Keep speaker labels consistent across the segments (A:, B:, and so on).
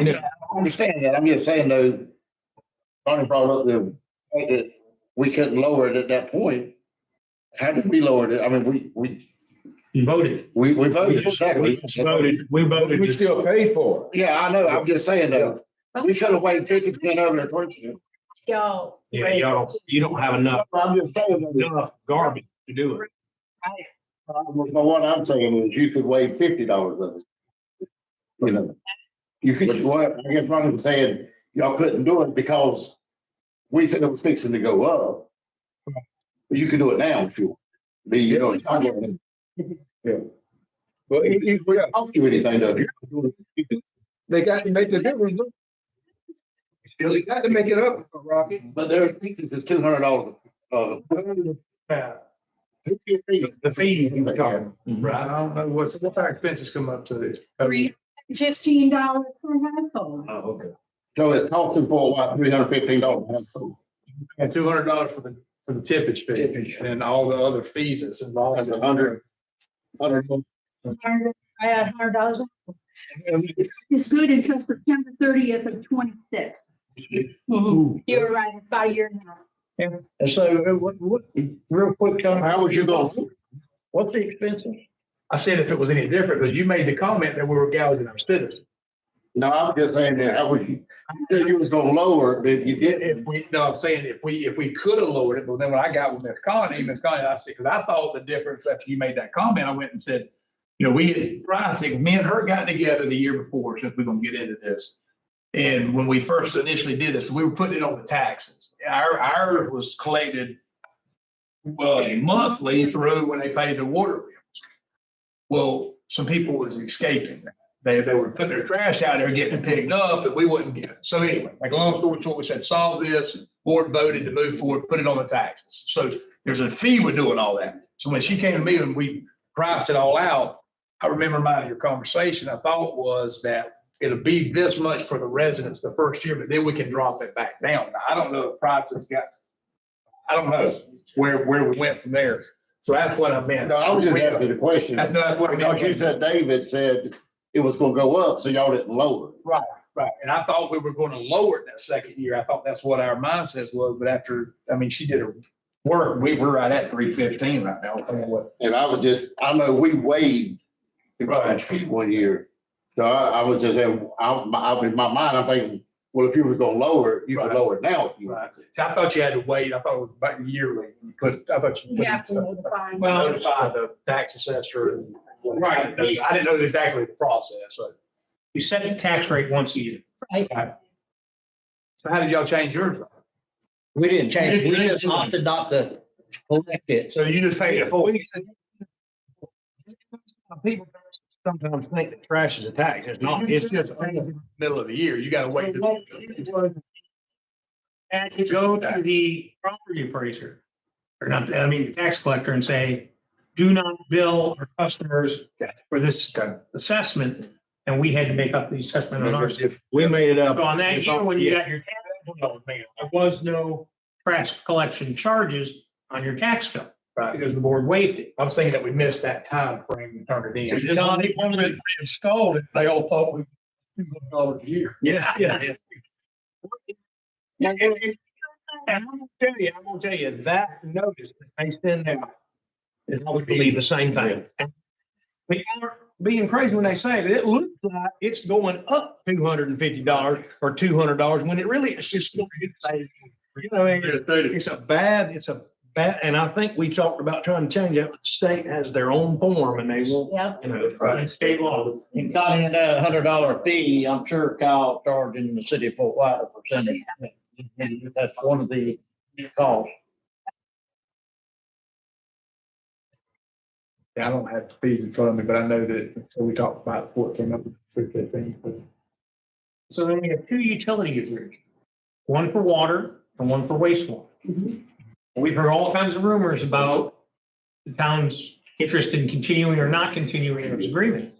A: I understand that. I'm just saying though, Donnie brought up the fact that we couldn't lower it at that point. How did we lower it? I mean, we, we,
B: You voted.
A: we, we voted,
B: We
A: exactly.
B: voted, we voted.
C: We still pay for it.
A: Yeah, I know. I'm just saying though, we could have waited fifty percent over the purchase.
D: Y'all.
B: Yeah, y'all, you don't have enough,
A: I'm just saying. though,
B: enough garbage to do it.
A: But what I'm saying is you could waive fifty dollars of it. You know, you could, what, I guess Ronnie was saying, y'all couldn't do it because we said it was fixing to go up. But You could do it now if you, want. be, you know, it's not going
C: But it- it- we got-
A: to cost you anything though.
C: they got to make the difference. look. Still, you got to make it up, Rocky.
A: But their fees is two hundred dollars, uh.
E: Yeah,
B: The fee you were talking,
A: Well,
E: right. I don't know what's, what's our expenses come up to this.
D: Three fifteen dollars per household.
E: Oh, okay.
A: So it's costing for what, three hundred fifteen dollars?
E: And two hundred dollars for the, for the tippage fee and then all the other fees that's involved.
A: That's a hundred. Hundred,
D: Hundred- I had hundred dollars. It's good until September thirtieth of twenty-six. You're right, about a year now.
F: And so, uh, what, what, real quick, Tom,
A: how was you going?
F: what's the expenses?
E: I said if it was any different, because you made the comment that we were gouging our citizens.
A: No, I'm just saying that, I was, you said you was gonna lower, it, but you didn't.
E: If we, no, I'm saying if we, if we could have lowered it, but then when I got with Ms. Connie, Ms. Connie, I said, because I thought the difference after you made that comment, I went and said, you know, we had priced it, 'cause me and her got together the year before, since we're gonna get into this. And when we first initially did this, we were putting it on the taxes. Our, ours was collected well, monthly through when they paid the water bills. Well, some people was escaping that. They, they were putting their trash out there, getting it picked up, and we wouldn't get it. So anyway, like long story short, we said, solve this. Board voted to move forward, put it on the taxes. So there's a fee we're doing all that. So when she came to me and we priced it all out, I remember my, your conversation, I thought was that it'll be this much for the residents the first year, but then we can drop it back down. Now, I don't know if prices got, I don't know where, where we went from there. So that's what I meant.
A: No, I was just asking the question.
E: That's not what I
A: Because you
E: meant.
A: said David said it was gonna go up, so y'all didn't lower. it.
E: Right, and I thought we were going to lower it that second year. I thought that's what our mindset was, but after, I mean, she did her work. We were right at three fifteen right now. I don't know what-
A: And I was just, I know we waived the
E: Right.
A: garage fee one year. So I, I was just, saying, I, my- I, in my mind, I'm thinking, well, if you was gonna lower it, you could
E: Right.
A: lower it now. if you want.
E: So I thought you had to wait. I thought it was about yearly, but I thought you.
D: You have to notify.
E: Well, notify the tax assessor. Right, I didn't know exactly the process, but.
B: You set the tax rate once a year.
E: So how did y'all change yours?
F: We didn't change,
B: We
F: we
B: didn't
F: just
B: change.
F: opted not to collect it.
E: So you just paid it full?
B: People sometimes think that trash is a tax. It's not, it's just.
E: Middle of the year, you gotta wait. to-
B: And you go to the property appraiser, or not, I mean, the tax collector and say, do not bill our customers for this assessment. And we had to make up the assessment on ours.
C: We made it up.
B: So on that year, when you got your tax bill, there was no trash collection charges on your tax bill
E: Right.
B: because the board waived it.
E: I'm saying that we missed that time frame to turn it in.
B: Johnny,
E: when they installed it, they all thought we two hundred dollars a year.
B: Yeah, yeah. And and- and I'm gonna tell you, I'm gonna tell you, that notice that they send out is always believe the same thing. We are being crazy when they say that it looks like it's going up two hundred and fifty dollars or two hundred dollars when it really is just. going to stay, You know, I mean, it's a bad, it's a bad, and I think we talked about trying to change it. The State has their own form and they won't,
D: Yeah.
B: you know, state law.
F: And got in that hundred dollar fee, I'm sure Kyle charging the city of Fort White a percentage. And that's one of the costs.
E: I don't have the fees in front of me, but I know that, so we talked about it before it came up, three fifteen.
B: So then we have two utility agreements, one for water and one for wastewater. We've heard all kinds of rumors about the town's interest in continuing or not continuing those agreements.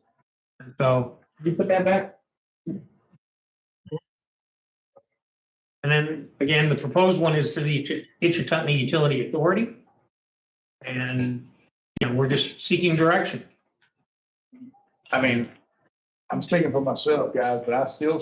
B: And So you put that back. And then again, the proposed one is for the Hitchcock Utility Authority. And, you know, we're just seeking direction.
E: I mean, I'm speaking for myself, guys, but I still